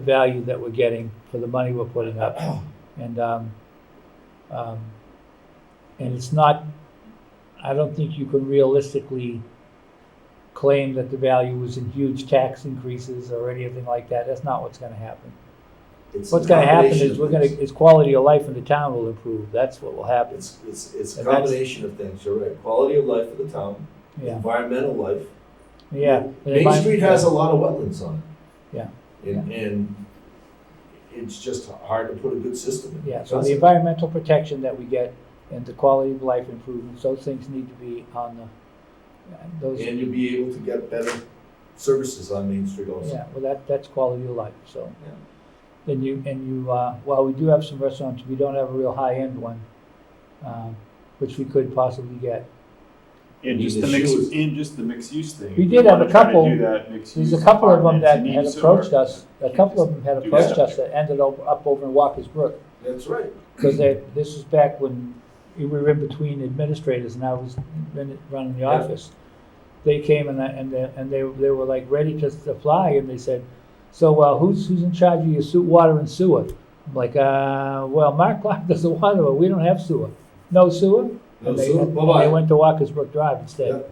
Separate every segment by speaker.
Speaker 1: the value that we're getting for the money we're putting up. And, um, um, and it's not, I don't think you can realistically claim that the value was in huge tax increases or anything like that. That's not what's gonna happen.
Speaker 2: It's
Speaker 1: What's
Speaker 2: a
Speaker 1: gonna happen
Speaker 2: combination
Speaker 1: is
Speaker 2: of
Speaker 1: we're gonna,
Speaker 2: things.
Speaker 1: is quality of life in the town will improve. That's what will happen.
Speaker 2: It's, it's, it's a
Speaker 1: And that's-
Speaker 2: combination of things, you're right, quality of life for the town,
Speaker 1: Yeah,
Speaker 2: environmental life.
Speaker 1: yeah.
Speaker 2: Main Street has a lot of wetlands on it.
Speaker 1: Yeah.
Speaker 2: And, and it's just hard to put a good system in.
Speaker 1: Yeah, so the environmental protection that we get and the quality of life improvements, those things need to be on the, those,
Speaker 2: And you'll be able to get better services on Main Street also.
Speaker 1: yeah, well, that, that's quality of life, so.
Speaker 2: Yeah.
Speaker 1: Then you, and you, uh, while we do have some restaurants, we don't have a real high-end one, um, which we could possibly get.
Speaker 3: And
Speaker 2: Need
Speaker 3: just
Speaker 2: the
Speaker 3: the mix,
Speaker 2: shoes.
Speaker 3: and just the mixed use thing.
Speaker 1: We
Speaker 3: If
Speaker 1: did
Speaker 3: you
Speaker 1: have a
Speaker 3: wanna try to
Speaker 1: couple-
Speaker 3: do that mixed
Speaker 1: There's a
Speaker 3: use
Speaker 1: couple of them
Speaker 3: apartments,
Speaker 1: that
Speaker 3: you
Speaker 1: had
Speaker 3: need sewer.
Speaker 1: approached us, a
Speaker 3: You
Speaker 1: couple of
Speaker 3: just
Speaker 1: them had
Speaker 3: do that.
Speaker 1: approached us that ended up, up over in Walker's Brook.
Speaker 2: That's right.
Speaker 1: Because that, this is back when we were in between administrators and I was run- running the
Speaker 2: Yeah.
Speaker 1: office. They came and I, and they, and they, they were like ready to apply and they said, so, uh, who's, who's in charge of your sew water and sewer? I'm like, uh, well, Mark Clark does the water, but we don't have sewer. No sewer?
Speaker 2: No,
Speaker 1: And they-
Speaker 2: so,
Speaker 1: and They
Speaker 2: bye-bye.
Speaker 1: went to Walker's Brook Drive instead.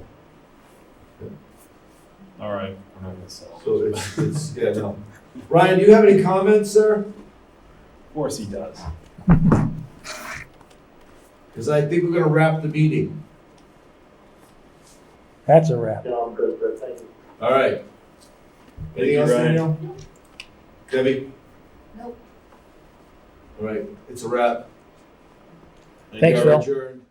Speaker 2: Yeah.
Speaker 3: All right, we're not gonna sell.
Speaker 2: So it's, it's, yeah, no. Ryan, do you have any comments, sir?
Speaker 3: Of course he does.
Speaker 2: Because I think we're gonna wrap the meeting.
Speaker 1: That's a wrap.
Speaker 4: No, I'm good, good, thank you.
Speaker 2: All right. Anything
Speaker 3: you,
Speaker 2: else,
Speaker 3: Ryan.
Speaker 2: Danielle? Debbie?
Speaker 5: Nope.
Speaker 2: All right, it's a wrap.
Speaker 3: Thank
Speaker 1: Thanks,
Speaker 3: you.
Speaker 2: We are
Speaker 1: Phil.
Speaker 2: adjourned.